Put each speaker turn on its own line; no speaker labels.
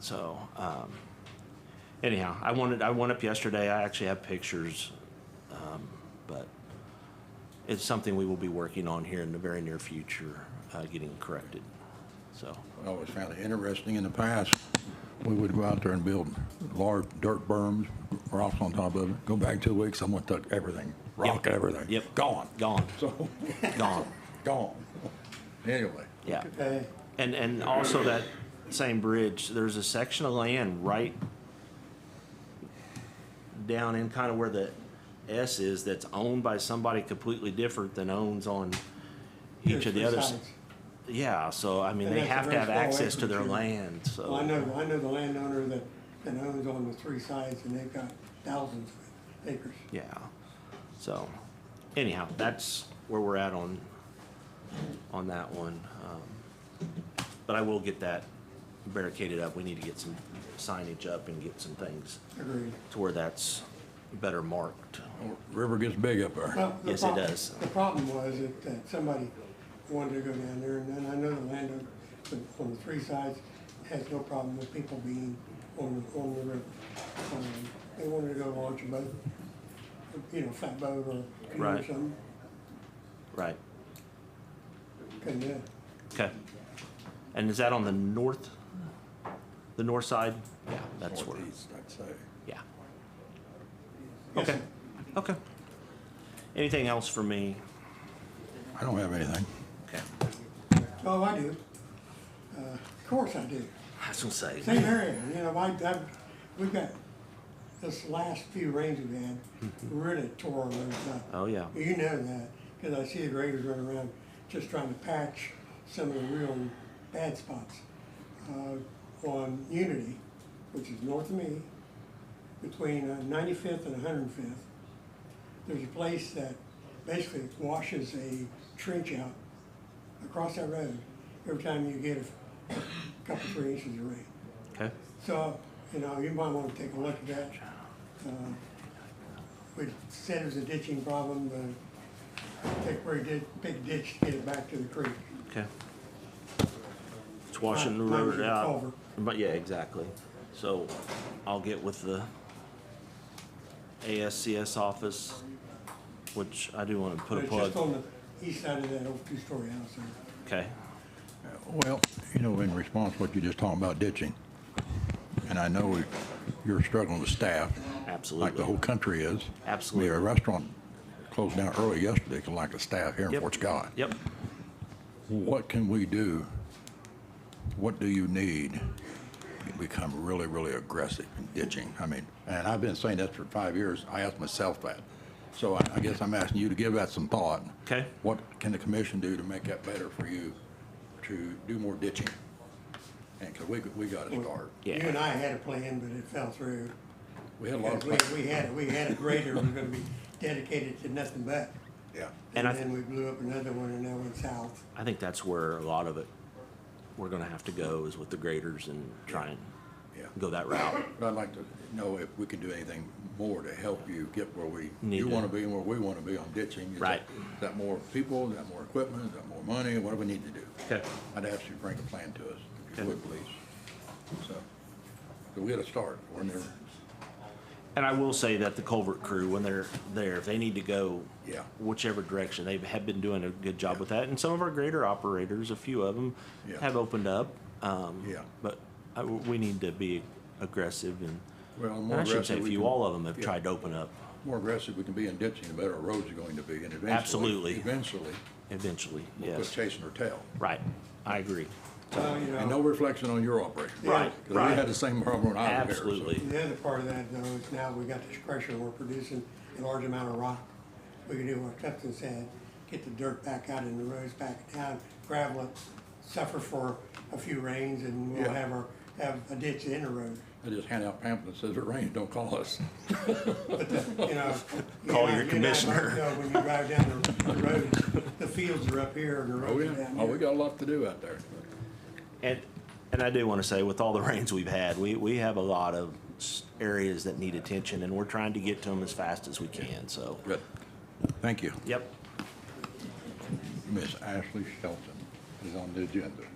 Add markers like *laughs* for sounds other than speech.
So, um, anyhow, I wanted, I went up yesterday. I actually have pictures. um, But it's something we will be working on here in the very near future, uh, getting corrected. So,
I always found it interesting, in the past, we would go out there and build large dirt berms, rocks on top of it, go back two weeks, someone took everything, rock
Yep.
everything.
Yep.
Gone,
gone,
so, *laughs*
gone. *laughs*
gone. Anyway,
Yeah.
Okay,
And, and also that same bridge, there's a section of land right down in kind of where the S is that's owned by somebody completely different than owns on each of the
Different
others.
sides.
Yeah, so I mean,
And
they
that's a
have to
very
have
small
access to their
acreage, yeah.
land, so.
Well, I know, I know the landowner that, that owns on the three sides and they've got thousands of acres.
Yeah, so anyhow, that's where we're at on, on that one. Um, But I will get that barricaded up. We need to get some signage up and get some things
Agreed.
to where that's better marked.
river gets big up there.
Well, the
Yes, it
prob-
does.
The problem was that, that somebody wanted to go down there and then I know the landowner on- on the three sides has no problem with people being on, the- on the river. Um, They wanted to go launch a boat, you know, fat boat or canoe or
Right.
something,
Right,
couldn't do it.
okay. And is that on the north, the north side? Yeah, that's where,
Northeast, I'd say.
yeah.
Yes,
Okay,
sir.
okay. Anything else for me?
I don't have anything.
Okay,
Oh, I do. Uh, Of course I do.
I was gonna say.
Same area, you know, I, I, we've got, this last few rains we've had, really tore our roads up.
Oh, yeah,
You know that, cause I see the graders running around just trying to patch some of the real bad spots. Uh, on Unity, which is north of me, between uh, ninety-fifth and hundred fifth, there's a place that basically washes a trench out across that road every time you get a couple, three inches of rain.
okay,
So, you know, you might want to take a look at that. Uh, We said it was a ditching problem, but take where he did, big ditch to get it back to the creek.
okay. It's washing the
Mine- mine was
river
in the
out.
culvert.
But yeah, exactly. So I'll get with the ASCS office, which I do wanna put
But
a
it's just
plug.
on the east side of that old two-story house there.
Okay,
Well, you know, in response to what you just talked about ditching, and I know you're struggling with staff, like the
absolutely.
whole country is.
Absolutely.
We had a restaurant closed down early yesterday, 'cause lack of staff here in
Yep.
Fort Scott.
Yep.
What can we do? What do you need to become really, really aggressive in ditching? I mean, and I've been saying that for five years. I asked myself that. So I, I guess I'm asking you to give that some thought.
Okay.
What can the commission do to make that better for you to do more ditching? And, cause we, we gotta start.
Yeah.
You and I had a plan, but it fell through.
We had a lot of,
Because we,
pla-
we had, we had a grader that was gonna be dedicated to nothing but.
yeah.
And
And
I-
then we blew up another one and that went south.
I think that's where a lot of it, we're gonna have to go is with the graders and try and
Yeah.
go that route.
But I'd like to know if we can do anything more to help you get where we,
Need
you
to-
wanna be and where we wanna be on ditching. Is that-
Right.
Is that more people, is that more equipment, is that more money, what do we need to do?
Okay.
I'd ask you to bring a plan to us, if you
Okay.
would, please. So, so we gotta start, we're never,
And I will say that the culvert crew, when they're there, if they need to go
Yeah.
whichever direction, they have been doing a good job with that. And some of our greater operators, a few of them,
Yeah.
have opened up. Um,
Yeah.
But I, we need to be aggressive and,
well, the
and
more
I should say
aggressive
a
we
few,
can-
all of them have
yeah,
tried to open up
More aggressive we can be in ditching, the better our roads are going to be, and eventually.
Absolutely.
Eventually,
eventually.
we'll quit
Yes.
chasing our tail.
Right. I agree.
Well, you
And
Oh.
know,
no reflection on your operation.
Right,
'Cause we had the same problem when I was there. so-
Absolutely.
The other part of that though is now we got this pressure, we're producing a large amount of rock. We can do what Clifton said, get the dirt back out and the roads back down, gravel it, suffer for a few rains and we'll
Yeah.
have our, have a ditch in the road.
I just hand out pamphlets, says it rains, don't call us.
You
*laughs*
know. you
Call
and
your
I- you and I both
commissioner.
know When you drive down the the road, the fields are up here and the
Oh,
roads are
yeah,
down
oh, we
here.
got a lot to do out there.
And, and I do want to say, with all the *laughs* rains we've had, we, we have a lot of s- areas that need attention and we're trying to get to them as fast as we can. So,
Good. Thank you.
yep.
Miss Ashley Shelton is on the agenda.